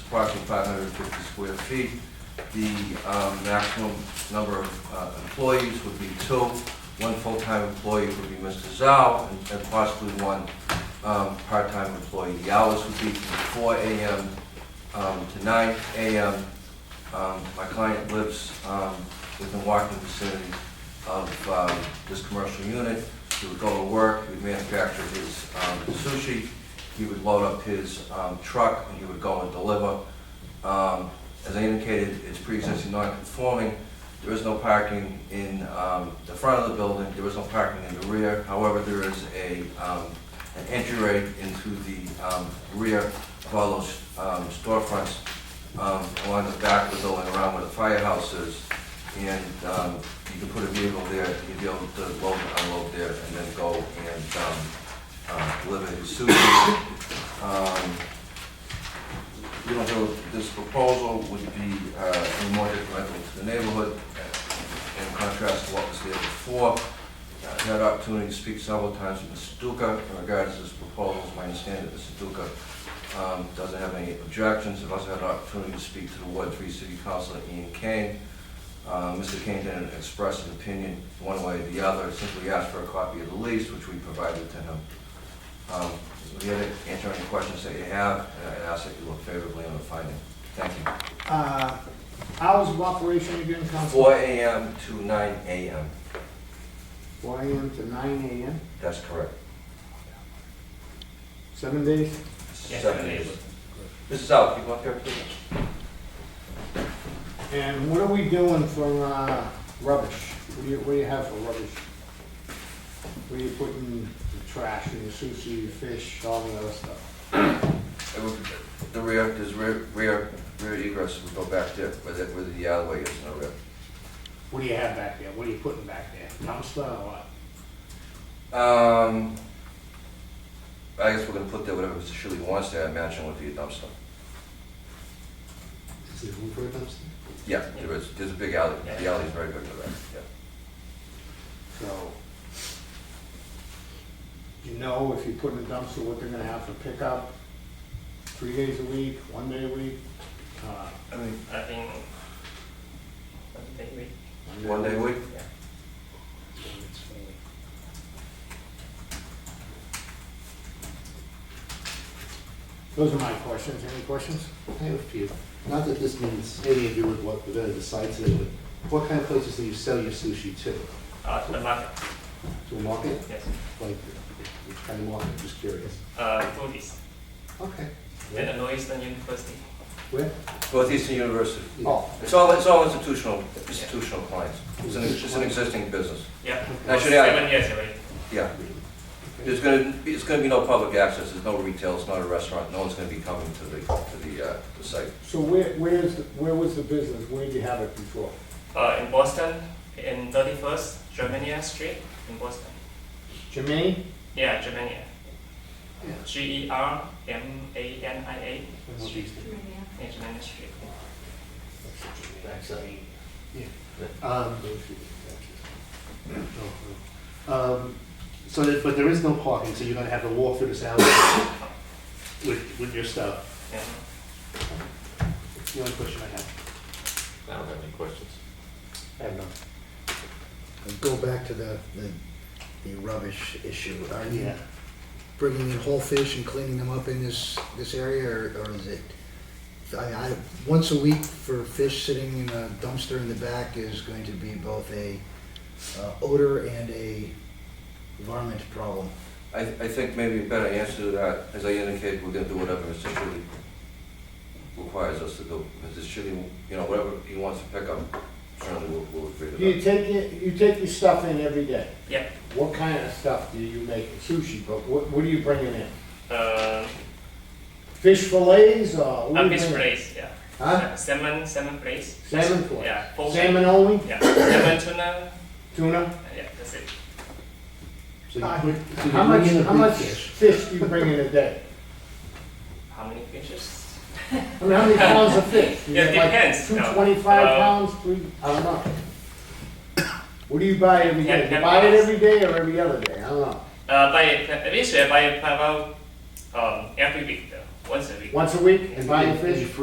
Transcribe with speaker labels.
Speaker 1: approximately five hundred and fifty square feet. The um, maximum number of uh, employees would be two. One full-time employee would be Mr. Zhao, and- and possibly one um, part-time employee. The hours would be from four AM um, to nine AM. Um, My client lives um, within walking vicinity of um, this commercial unit. He would go to work, he would manufacture his um, sushi, he would load up his um, truck, and he would go and deliver. Um, As I indicated, it's pre-existing non-conforming, there is no parking in um, the front of the building, there is no parking in the rear. However, there is a, um, an entryway into the um, rear of all those um, storefronts um, along the back of the building, around where the firehouse is. And um, you can put a vehicle there, you'd be able to load and unload there, and then go and um, uh, deliver his sushi. Um, you know, so this proposal would be uh, more detrimental to the neighborhood, uh, in contrast to what was there before. Uh, I've had opportunity to speak several times with Mr. Duca in regards to this proposal. It's my understanding that Mr. Duca um, doesn't have any objections. I've also had an opportunity to speak to the Ward Three City Councilor Ian Kane. Uh, Mr. Kane didn't express an opinion one way or the other, simply asked for a copy of the lease, which we provided to him. Um, If you have any- answer any questions that you have, and I ask that you look favorably on the finding. Thank you.
Speaker 2: Uh, Hours of operation again, Council?
Speaker 1: Four AM to nine AM,
Speaker 2: Four AM to nine AM,
Speaker 1: that's correct.
Speaker 2: seven days?
Speaker 1: Seven days. Mrs. Al, can you come up here, please?
Speaker 2: And what are we doing for uh, rubbish? What do you, what do you have for rubbish? Where you putting the trash and your sushi, your fish, all the other stuff?
Speaker 1: It would- The rear, there's rear, rear, rear egress, we go back there, where the, where the alleyway is, no rear.
Speaker 2: What do you have back there? What are you putting back there? Dumpster or what?
Speaker 1: Um, I guess we're gonna put there whatever Mr. Shuley wants there, I imagine would be a dumpster.
Speaker 2: Is there room for a dumpster?
Speaker 1: Yeah, there is, there's a big alley, the alley's very big for that, yeah.
Speaker 2: So, do you know if you put in a dumpster, what they're gonna have for pickup? Three days a week, one day a week? Uh,
Speaker 1: I mean,
Speaker 3: I think, I think we,
Speaker 1: one day a week?
Speaker 3: yeah.
Speaker 2: Those are my questions. Any questions?
Speaker 4: I have a few. Not that this means anything to do with what the vendor decides to, do, but what kind of places do you sell your sushi to?
Speaker 3: Uh, to the market,
Speaker 4: To a market?
Speaker 3: yes,
Speaker 4: Like, which kind of market? Just curious.
Speaker 3: uh, Buddhist,
Speaker 4: Okay.
Speaker 3: then the Northeastern University.
Speaker 4: Where?
Speaker 1: Northeastern University.
Speaker 4: Yeah.
Speaker 2: Oh,
Speaker 1: It's all, it's all institutional, institutional clients. It's an, it's an existing business,
Speaker 3: Yeah.
Speaker 1: Now, should I-
Speaker 3: Seven years already.
Speaker 1: yeah. There's gonna, be- it's gonna be no public access, there's no retail, it's not a restaurant, no one's gonna be coming to the, to the, uh, the site.
Speaker 2: so where, where's, the- where was the business? Where did you have it before?
Speaker 3: Uh, in Boston, in thirty-first, Germania Street, in Boston.
Speaker 2: Jermaine?
Speaker 3: Yeah, Germania.
Speaker 4: Yeah.
Speaker 3: G E R M A N I A, yeah, Germania Street.
Speaker 4: Um, um, So that, but there is no parking, so you're gonna have to walk through this alley with, with your stuff.
Speaker 3: Yeah.
Speaker 4: The only question I have.
Speaker 5: I don't have any questions.
Speaker 4: I have none.
Speaker 6: And Go back to the, the, the rubbish issue. Are you
Speaker 4: Yeah.
Speaker 6: bringing in whole fish and cleaning them up in this, this area, or, or is it? I, I, once a week for fish sitting in a dumpster in the back is going to be both a uh, odor and a varmint problem.
Speaker 1: I, I think maybe a better answer to that, as I indicated, we're gonna do whatever Mr. Shuley requires us to do. Mr. Shuley, you know, whatever he wants to pick up, certainly we'll, we'll agree to
Speaker 2: You
Speaker 1: that.
Speaker 2: take it, you take your stuff in every day.
Speaker 3: Yeah.
Speaker 2: What kind of stuff do you make? Sushi, but what, what are you bringing in?
Speaker 3: Uh,
Speaker 2: Fish fillets or? what
Speaker 3: uh,
Speaker 2: do you
Speaker 3: fish
Speaker 2: bring-
Speaker 3: place, yeah.
Speaker 2: Huh?
Speaker 3: Uh, Salmon, salmon place.
Speaker 2: Salmon fillets?
Speaker 3: Yeah, full-
Speaker 2: Salmon only?
Speaker 3: Yeah, salmon tuna,
Speaker 2: Tuna?
Speaker 3: yeah, that's it.
Speaker 4: So you
Speaker 2: Uh,
Speaker 4: bring- so you
Speaker 2: How
Speaker 4: bring
Speaker 2: much,
Speaker 4: in the
Speaker 2: how
Speaker 4: big
Speaker 2: much
Speaker 4: fish.
Speaker 2: fish do you bring in a day?
Speaker 3: How many fishes?
Speaker 2: I mean, how many pounds of fish? You
Speaker 3: Yeah, it
Speaker 2: get like
Speaker 3: depends.
Speaker 2: Two
Speaker 3: No,
Speaker 2: twenty-five
Speaker 3: uh,
Speaker 2: pounds, three, I don't know. What do you buy every
Speaker 3: Ten-
Speaker 2: day? You
Speaker 3: ten
Speaker 2: buy it
Speaker 3: pounds.
Speaker 2: every day or every other day? I don't know.
Speaker 3: Uh, by at least uh, by about um, every week, though, once a week.
Speaker 2: Once a week and buy
Speaker 4: And-
Speaker 2: the
Speaker 4: and
Speaker 2: fish?
Speaker 4: you